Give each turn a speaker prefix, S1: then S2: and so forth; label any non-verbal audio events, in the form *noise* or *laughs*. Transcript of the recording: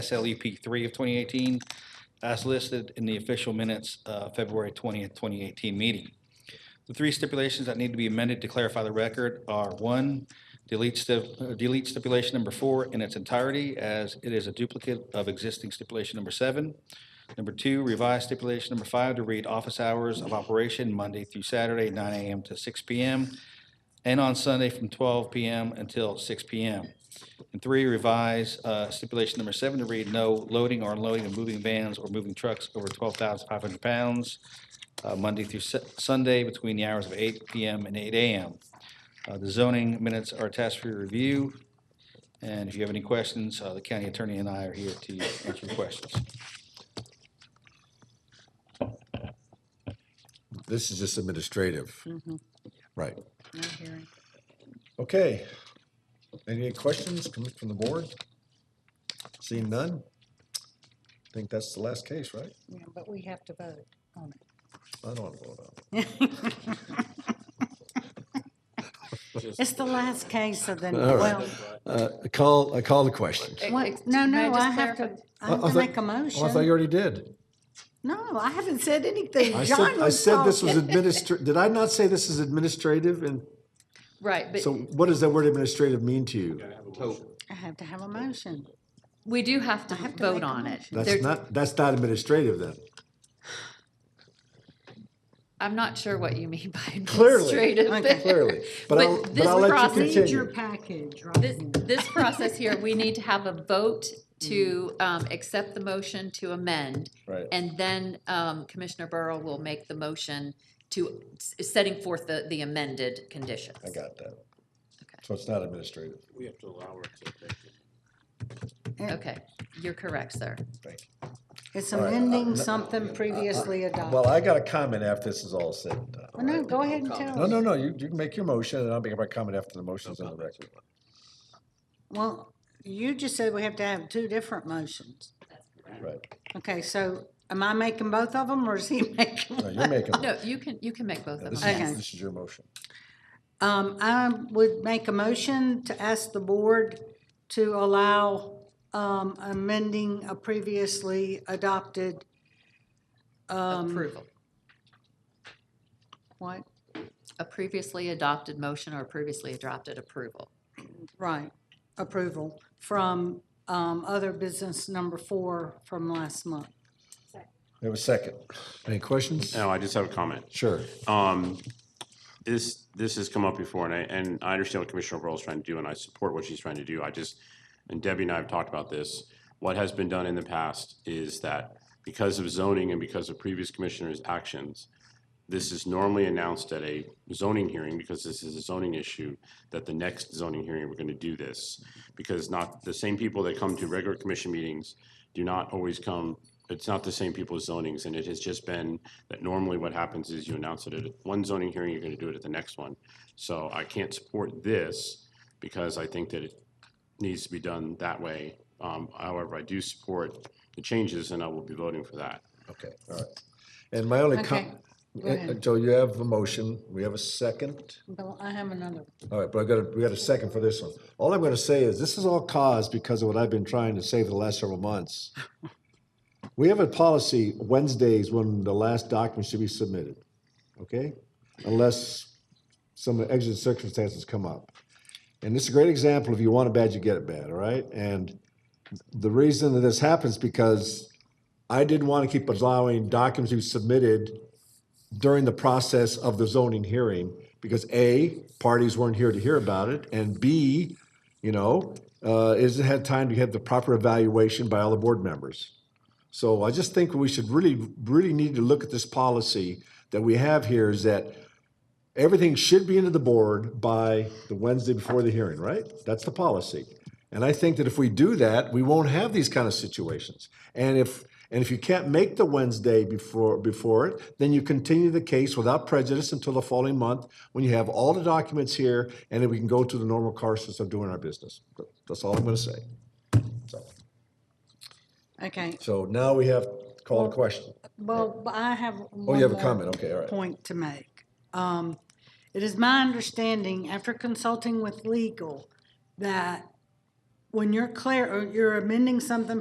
S1: SLEP E three of twenty eighteen as listed in the official minutes, uh, February twentieth, twenty eighteen meeting. The three stipulations that need to be amended to clarify the record are, one, delete stip, uh, delete stipulation number four in its entirety as it is a duplicate of existing stipulation number seven. Number two, revise stipulation number five to read office hours of operation Monday through Saturday, nine AM to six PM, and on Sunday from twelve PM until six PM. And three, revise uh, stipulation number seven to read no loading or unloading of moving vans or moving trucks over 12,500 pounds uh, Monday through Su- Sunday between the hours of 8 PM and 8 AM. Uh, The zoning minutes are attached for your review, and if you have any questions, uh, the county attorney and I are here to answer your questions.
S2: This is just administrative.
S3: Mm-hmm.
S2: Right.
S3: No hearing.
S2: Okay. Any questions coming from the board? Seeing none? I think that's the last case, right?
S3: Yeah, but we have to vote on it.
S2: I don't want to vote on it.
S3: It's the last case of the,
S2: All right.
S3: well,
S2: Uh, I call, I call the question.
S3: what, no, no, I have to, I have
S2: I
S3: to
S2: thought-
S3: make a
S2: Oh, I thought you
S3: motion.
S2: already did.
S3: No, I haven't said anything.
S2: I
S3: John
S2: said, I
S3: was
S2: said this was
S3: talking. *laughs*
S2: administr, did I not say this is administrative? And
S4: Right,
S2: so
S4: but
S2: what does that word administrative mean to you?
S3: I have to have a motion.
S4: we do have to
S3: have to make
S4: vote
S3: a
S4: on it.
S2: That's
S4: There-
S2: not, that's not administrative then.
S4: I'm not sure what you mean by
S2: *laughs* Clearly.
S4: administrative.
S3: Okay. *laughs*
S2: Clearly. But
S4: But
S2: I'll, but
S4: this
S2: I'll let
S4: process-
S2: you
S4: Read
S3: Read your
S2: continue.
S3: package right
S4: This, *laughs* this process here, we need to have a vote to um, accept the motion to amend.
S2: Right.
S4: And then um, Commissioner Burrow will make the motion to, s- setting forth the, the amended conditions.
S2: I got that. So it's not administrative.
S5: We have to allow her to take it.
S4: Okay, you're correct, sir.
S2: Thank you.
S3: It's
S2: All right, uh,
S3: amending
S2: no-
S3: something previously
S2: Well,
S3: adopted.
S2: I got a comment after this is all said and done.
S3: Well, Uh, Oh, no, go ahead and
S2: No,
S3: tell us.
S2: no, no, you, you can make your motion, and I'll make my comment after the motion's on the record.
S3: Well, you just said we have to have two different motions.
S2: Right,
S3: Okay, so am I making both of them or is he *laughs* making?
S2: no, you're making,
S4: No, you can, you can make both
S2: yeah,
S4: of
S2: this
S4: them.
S3: Okay.
S2: is, this is your motion.
S3: Um, I would make a motion to ask the board to allow, um, amending a previously adopted, um,
S4: Approval.
S3: what,
S4: A previously adopted motion or previously adopted approval.
S3: right, approval from, um, other business number four from last month.
S2: It was second. Any questions?
S5: No, Oh, I just have a comment.
S2: Sure.
S5: Um, this, this has come up before, and I, and I understand what Commissioner Overall is trying to do, and I support what she's trying to do. I just, and Debbie and I have talked about this. What has been done in the past is that because of zoning and because of previous commissioners' actions, this is normally announced at a zoning hearing, because this is a zoning issue, that the next zoning hearing, we're gonna do this. Because not, the same people that come to regular commission meetings do not always come, it's not the same people's zonings, and it has just been that normally what happens is you announce it at one zoning hearing, you're gonna do it at the next one. So I can't support this, because I think that it needs to be done that way. Um, however, I do support the changes, and I will be voting for that.
S2: Okay, all right. And my only
S3: Okay,
S2: com, uh,
S3: go ahead.
S2: Joe, you have a motion, we have a second.
S3: Bill, I have another.
S2: All right, but I got a, we got a second for this one. All I'm gonna say is, this is all caused because of what I've been trying to say for the last several months. We have a policy Wednesdays when the last document should be submitted, okay? Unless some exit circumstances come up. And this is a great example, if you want it bad, you get it bad, all right? And the reason that this happens because I didn't want to keep allowing documents to be submitted during the process of the zoning hearing because A, parties weren't here to hear about it, and B, you know, uh, is it had time to have the proper evaluation by all the board members. So I just think we should really, really need to look at this policy that we have here is that everything should be into the board by the Wednesday before the hearing, right? That's the policy. And I think that if we do that, we won't have these kind of situations. And if, and if you can't make the Wednesday before, before it, then you continue the case without prejudice until the following month when you have all the documents here and then we can go to the normal courses of doing our business. That's all I'm gonna say. So-
S3: Okay,
S2: So now we have, call a question.
S3: well, I have one
S2: Oh, you have a
S3: more.
S2: comment, okay, all right.
S3: point to make. Um, It is my understanding, after consulting with legal, that when you're clear, or you're amending something